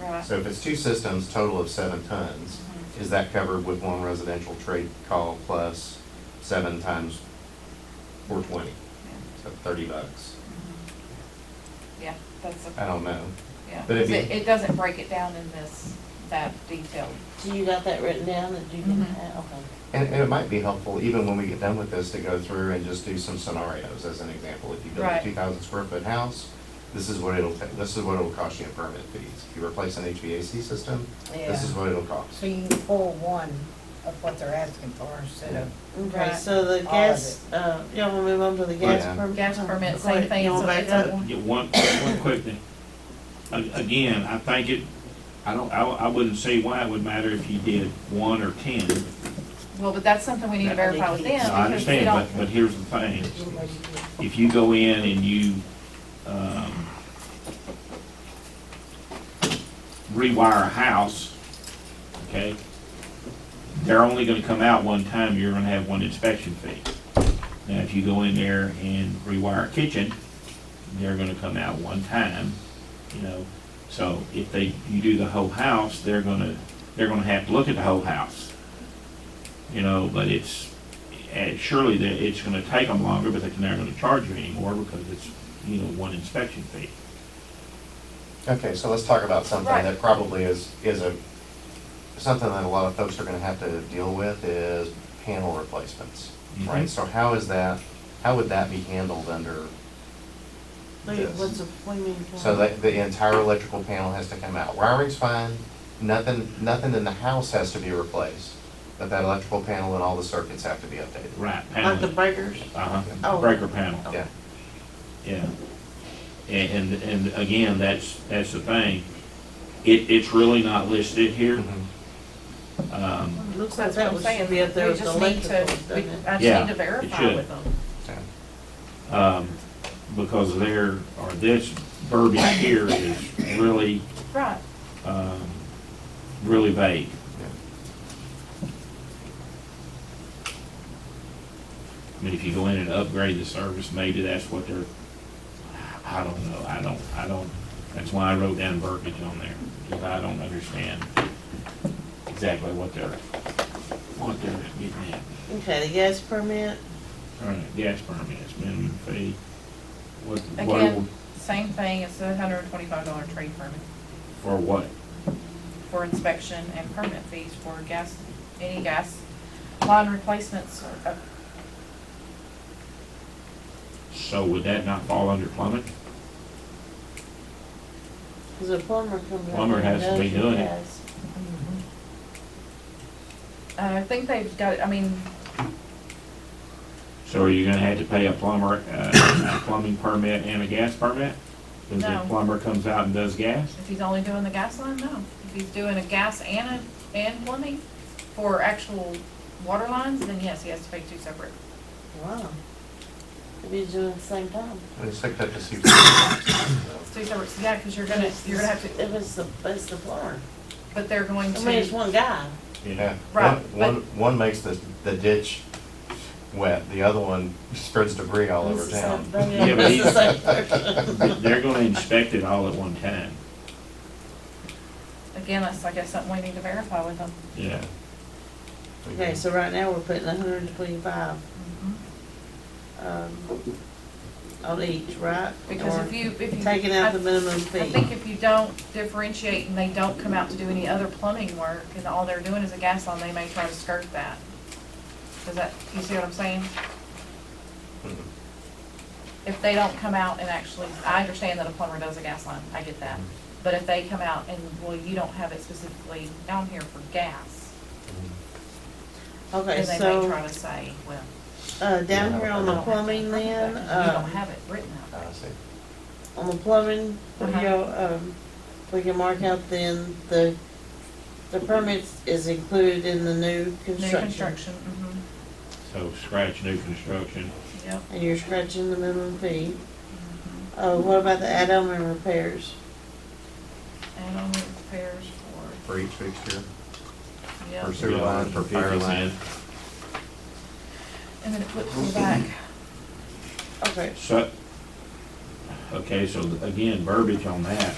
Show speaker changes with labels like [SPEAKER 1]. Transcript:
[SPEAKER 1] Right. Mm-hmm.
[SPEAKER 2] So if it's two systems, total of seven tons, is that covered with one residential trade call plus seven times four twenty? So thirty bucks?
[SPEAKER 1] Yeah, that's,
[SPEAKER 2] I
[SPEAKER 3] Uh,
[SPEAKER 1] a
[SPEAKER 2] don't know.
[SPEAKER 1] yeah,
[SPEAKER 2] But it'd
[SPEAKER 1] 'cause it,
[SPEAKER 2] be-
[SPEAKER 1] it doesn't break it down in this, that detail.
[SPEAKER 4] So you got that written down that you can,
[SPEAKER 1] Mhm.
[SPEAKER 4] uh, okay.
[SPEAKER 2] And, and it might be helpful, even when we get done with this, to go through and just do some scenarios as an example. If you build a
[SPEAKER 1] Right.
[SPEAKER 2] two thousand square foot house, this is what it'll, ta- this is what it'll cost you in permit fees. If you replace an HVAC system, this is
[SPEAKER 5] Yeah.
[SPEAKER 2] what it'll cost.
[SPEAKER 5] So you can pull one of what they're asking for instead of,
[SPEAKER 4] Okay,
[SPEAKER 1] Right.
[SPEAKER 4] so the
[SPEAKER 5] All of
[SPEAKER 4] gas, uh, y'all wanna move on to the gas
[SPEAKER 2] Yeah.
[SPEAKER 4] permit?
[SPEAKER 1] Gas permit, same
[SPEAKER 4] Go ahead,
[SPEAKER 1] thing,
[SPEAKER 4] you
[SPEAKER 1] so
[SPEAKER 4] wanna
[SPEAKER 1] it's
[SPEAKER 4] back
[SPEAKER 1] a-
[SPEAKER 4] up?
[SPEAKER 3] Yeah, one, one quick thing. A- Again, I think it, I don't, I, I wouldn't say why it would matter if you did one or ten.
[SPEAKER 1] Well, but that's something we need to
[SPEAKER 4] That
[SPEAKER 1] verify with them.
[SPEAKER 4] leaky.
[SPEAKER 3] No, I
[SPEAKER 1] because we
[SPEAKER 3] understand,
[SPEAKER 1] don't-
[SPEAKER 3] but, but here's the thing. If you go in and you, um, rewire a house, okay? They're only gonna come out one time, you're gonna have one inspection fee. Now, if you go in there and rewire a kitchen, they're gonna come out one time, you know? So if they, you do the whole house, they're gonna, they're gonna have to look at the whole house. You know, but it's, and surely that it's gonna take them longer, but they're not gonna charge you anymore because it's, you know, one inspection fee.
[SPEAKER 2] Okay, so let's talk about something
[SPEAKER 1] Right.
[SPEAKER 2] that probably is, is a, something that a lot of folks are gonna have to deal with is panel replacements, right?
[SPEAKER 3] Mhm.
[SPEAKER 2] So how is that, how would that be handled under,
[SPEAKER 4] Wait,
[SPEAKER 2] Yes.
[SPEAKER 4] what's the, what do you mean?
[SPEAKER 2] so that the entire electrical panel has to come out? Wiring's fine, nothing, nothing in the house has to be replaced, but that electrical panel and all the circuits have to be updated.
[SPEAKER 3] Right,
[SPEAKER 4] Like the
[SPEAKER 3] panel,
[SPEAKER 4] breakers?
[SPEAKER 3] uh-huh,
[SPEAKER 4] Oh.
[SPEAKER 3] breaker panel,
[SPEAKER 2] Yeah,
[SPEAKER 3] yeah. And, and, and again, that's, that's the thing. It, it's really not listed here.
[SPEAKER 4] Mm-hmm.
[SPEAKER 2] Mhm.
[SPEAKER 3] Um,
[SPEAKER 1] That's
[SPEAKER 4] Looks like
[SPEAKER 1] what
[SPEAKER 4] that
[SPEAKER 1] I'm
[SPEAKER 4] was,
[SPEAKER 1] saying.
[SPEAKER 4] should be up there
[SPEAKER 1] We
[SPEAKER 4] with the
[SPEAKER 1] just need to-
[SPEAKER 4] electrical, doesn't
[SPEAKER 1] we-
[SPEAKER 4] it?
[SPEAKER 1] I
[SPEAKER 3] Yeah,
[SPEAKER 1] just need to
[SPEAKER 3] it
[SPEAKER 1] verify
[SPEAKER 3] should.
[SPEAKER 1] with them.
[SPEAKER 2] yeah.
[SPEAKER 3] um, because there, or this verbiage here is really,
[SPEAKER 1] Right,
[SPEAKER 3] um, really vague. I mean, if you go in and upgrade the service, maybe that's what they're, I don't know, I don't, I don't, that's why I wrote down verbiage on there, because I don't understand exactly what they're, what they're getting at.
[SPEAKER 4] Okay, the gas permit,
[SPEAKER 3] All right, gas permits, minimum fee, what, what,
[SPEAKER 1] again, same thing, it's a hundred and twenty-five dollar trade permit
[SPEAKER 3] for what?
[SPEAKER 1] for inspection and permit fees for gas, any gas line replacements Uh, or, up-
[SPEAKER 3] So would that not fall under plumbing?
[SPEAKER 4] cause the plumber comes out.
[SPEAKER 3] Plumber has to be doing it.
[SPEAKER 1] I think they've got, I mean,
[SPEAKER 3] So are you gonna have to pay a plumber, uh, a plumbing permit and a gas permit? If the
[SPEAKER 1] No.
[SPEAKER 3] plumber comes out and does gas?
[SPEAKER 1] if he's only doing the gas line, no. If he's doing a gas and a, and plumbing for actual water lines, then yes, he has to pay two separate.
[SPEAKER 4] Wow. If he's doing it at the same time.
[SPEAKER 2] I just looked up to see if-
[SPEAKER 1] It's two separate, yeah, because you're gonna, you're gonna have to,
[SPEAKER 4] If it's the, it's the plumber.
[SPEAKER 1] but they're going
[SPEAKER 4] I mean, it's
[SPEAKER 1] to,
[SPEAKER 4] one guy.
[SPEAKER 2] Yeah,
[SPEAKER 1] Right,
[SPEAKER 2] one, one, one makes the, the ditch wet, the other one spreads debris all over
[SPEAKER 4] It's the same-
[SPEAKER 2] town.
[SPEAKER 3] Yeah, but
[SPEAKER 4] It's the same person.
[SPEAKER 3] They're gonna inspect it all at one time.
[SPEAKER 1] again, that's, I guess, something we need to verify with them.
[SPEAKER 3] Yeah.
[SPEAKER 4] Okay, so right now, we're putting hundred and twenty-five, um, on each, right?
[SPEAKER 1] Because
[SPEAKER 4] Or
[SPEAKER 1] if you, if you.
[SPEAKER 4] Taking out the minimum
[SPEAKER 1] I think
[SPEAKER 4] fee.
[SPEAKER 1] if you don't differentiate and they don't come out to do any other plumbing work and all they're doing is a gas line, they may try to skirt that. Does that, you see what I'm saying?
[SPEAKER 2] Mhm.
[SPEAKER 4] Mm-hmm.
[SPEAKER 1] If they don't come out and actually, I understand that a plumber does a gas line, I get that.
[SPEAKER 4] Mm-hmm.
[SPEAKER 1] But if they come out and, well, you don't have it specifically down here for gas,
[SPEAKER 4] Okay,
[SPEAKER 1] then they may
[SPEAKER 4] so,
[SPEAKER 1] try to say, well,
[SPEAKER 4] uh, down
[SPEAKER 2] Yeah.
[SPEAKER 4] here on
[SPEAKER 1] you
[SPEAKER 4] the
[SPEAKER 1] don't have it
[SPEAKER 4] plumbing
[SPEAKER 1] for plumbing
[SPEAKER 4] then,
[SPEAKER 1] work, You don't
[SPEAKER 4] uh,
[SPEAKER 1] have it written out.
[SPEAKER 2] I see.
[SPEAKER 4] on the plumbing, we
[SPEAKER 1] Uh-huh.
[SPEAKER 4] go, um, we can mark out then the, the permits is included in the new
[SPEAKER 1] New
[SPEAKER 4] construction.
[SPEAKER 1] construction, mm-hmm,
[SPEAKER 3] So scratch new construction.
[SPEAKER 1] yep.
[SPEAKER 4] And you're scratching the minimum fee.
[SPEAKER 1] Mm-hmm.
[SPEAKER 4] Uh, what about the add-on and repairs?
[SPEAKER 1] And only repairs for,
[SPEAKER 2] For each fixture,
[SPEAKER 1] yep.
[SPEAKER 2] for sewer line, for fire
[SPEAKER 3] Fifty
[SPEAKER 2] line.
[SPEAKER 3] cent.
[SPEAKER 1] And then it flips to the back.
[SPEAKER 4] Okay,
[SPEAKER 3] So, okay, so again, verbiage on that.